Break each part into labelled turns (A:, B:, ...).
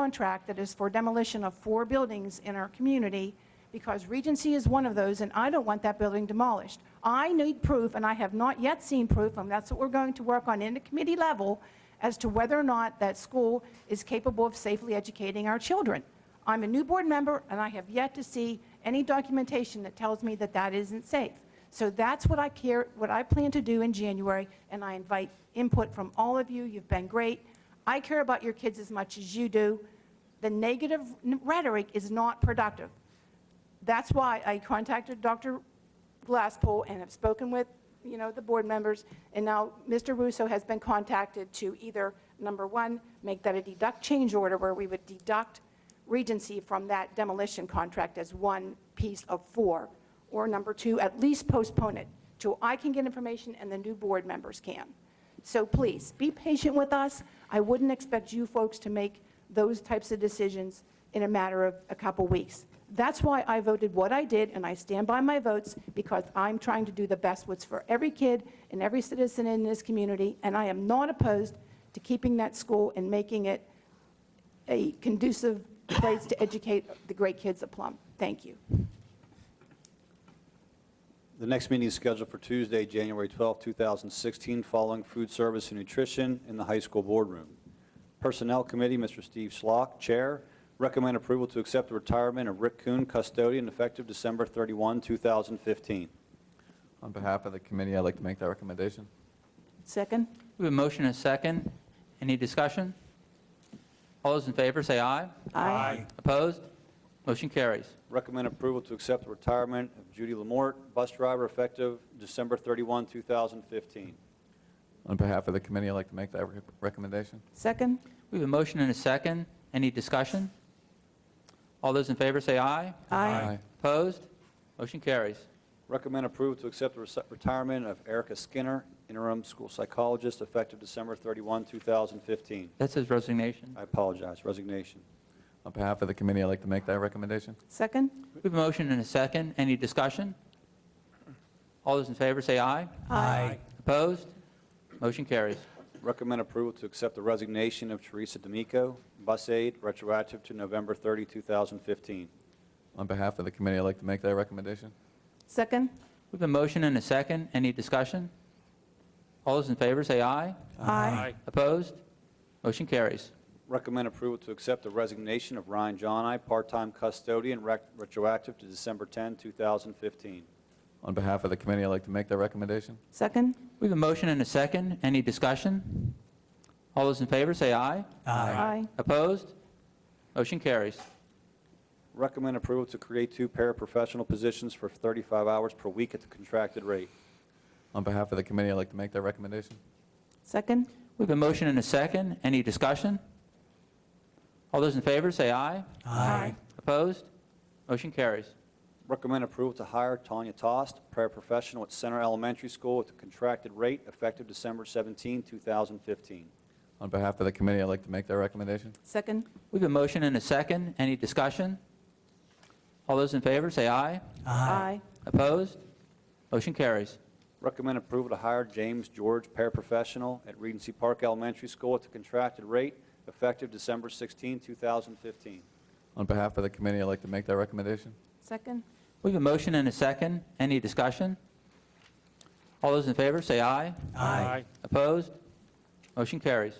A: contract that is for demolition of four buildings in our community because Regency is one of those, and I don't want that building demolished. I need proof, and I have not yet seen proof, and that's what we're going to work on in the committee level as to whether or not that school is capable of safely educating our children. I'm a new board member, and I have yet to see any documentation that tells me that that isn't safe. So that's what I care, what I plan to do in January, and I invite input from all of you. You've been great. I care about your kids as much as you do. The negative rhetoric is not productive. That's why I contacted Dr. Glasspool and have spoken with, you know, the board members, and now Mr. Russo has been contacted to either, number one, make that a deduct change order where we would deduct Regency from that demolition contract as one piece of four, or number two, at least postpone it till I can get information and the new board members can. So please, be patient with us. I wouldn't expect you folks to make those types of decisions in a matter of a couple weeks. That's why I voted what I did, and I stand by my votes, because I'm trying to do the best what's for every kid and every citizen in this community, and I am not opposed to keeping that school and making it a conducive place to educate the great kids of Plum. Thank you.
B: The next meeting is scheduled for Tuesday, January 12, 2016, following food service and nutrition in the high school boardroom. Personnel Committee, Mr. Steve Schlock, Chair, recommend approval to accept the retirement of Rick Kuhn, custodian, effective December 31, 2015.
C: On behalf of the committee, I'd like to make that recommendation.
A: Second?
D: We have a motion and a second. Any discussion? All those in favor, say aye.
A: Aye.
D: Opposed? Motion carries.
B: Recommend approval to accept the retirement of Judy Lamort, bus driver, effective December 31, 2015.
C: On behalf of the committee, I'd like to make that rec- recommendation.
A: Second?
D: We have a motion and a second. Any discussion? All those in favor, say aye. Opposed? Motion carries.
B: Recommend approval to accept the rece- retirement of Erica Skinner, interim school psychologist, effective December 31, 2015.
D: That says resignation.
B: I apologize, resignation.
C: On behalf of the committee, I'd like to make that recommendation.
A: Second?
D: We have a motion and a second. Any discussion? All those in favor, say aye.
A: Aye.
D: Opposed? Motion carries.
B: Recommend approval to accept the resignation of Teresa D'Amico, bus aide, retroactive to November 30, 2015.
C: On behalf of the committee, I'd like to make that recommendation.
A: Second?
D: We have a motion and a second. Any discussion? All those in favor, say aye.
A: Aye.
D: Opposed? Motion carries.
B: Recommend approval to accept the resignation of Ryan Johnai, part-time custodian, rec- retroactive to December 10, 2015.
C: On behalf of the committee, I'd like to make that recommendation.
A: Second?
D: We have a motion and a second. Any discussion? All those in favor, say aye.
A: Aye.
D: Opposed? Motion carries.
B: Recommend approval to create two paraprofessional positions for 35 hours per week at the contracted rate.
C: On behalf of the committee, I'd like to make that recommendation.
A: Second?
D: We have a motion and a second. Any discussion? All those in favor, say aye.
A: Aye.
D: Opposed? Motion carries.
B: Recommend approval to hire Tanya Tost, paraprofessional at Center Elementary School at the contracted rate, effective December 17, 2015.
C: On behalf of the committee, I'd like to make that recommendation.
A: Second?
D: We have a motion and a second. Any discussion? All those in favor, say aye.
A: Aye.
D: Opposed? Motion carries.
B: Recommend approval to hire James George, paraprofessional at Regency Park Elementary School at the contracted rate, effective December 16, 2015.
C: On behalf of the committee, I'd like to make that recommendation.
A: Second?
D: We have a motion and a second. Any discussion? All those in favor, say aye.
A: Aye.
D: Opposed? Motion carries.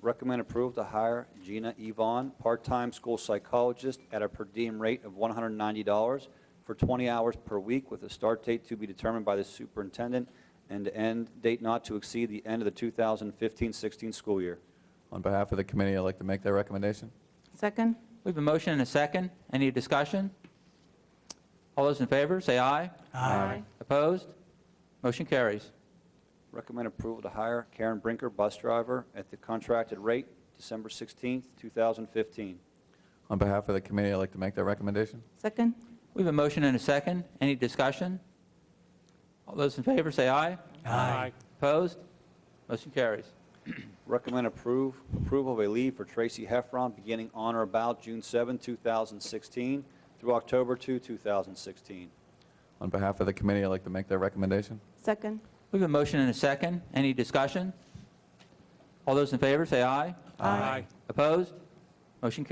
B: Recommend approval to hire Gina Yvonne, part-time school psychologist at a per diem rate of $190 for 20 hours per week with a start date to be determined by the superintendent and end date not to exceed the end of the 2015-16 school year.
C: On behalf of the committee, I'd like to make that recommendation.
A: Second?
D: We have a motion and a second. Any discussion? All those in favor, say aye.
A: Aye.
D: Opposed? Motion carries.
B: Recommend approval to hire Karen Brinker, bus driver, at the contracted rate, December 16, 2015.
C: On behalf of the committee, I'd like to make that recommendation.
A: Second?
D: We have a motion and a second. Any discussion? All those in favor, say aye. Aye. Opposed? Motion carries.
B: Recommend approve, approval of a leave for Tracy Heffron beginning on or about June 7, 2016 through October 2, 2016.
C: On behalf of the committee, I'd like to make that recommendation.
A: Second?
D: We have a motion and a second. Any discussion? All those in favor, say aye.
A: Aye.
D: Opposed? Motion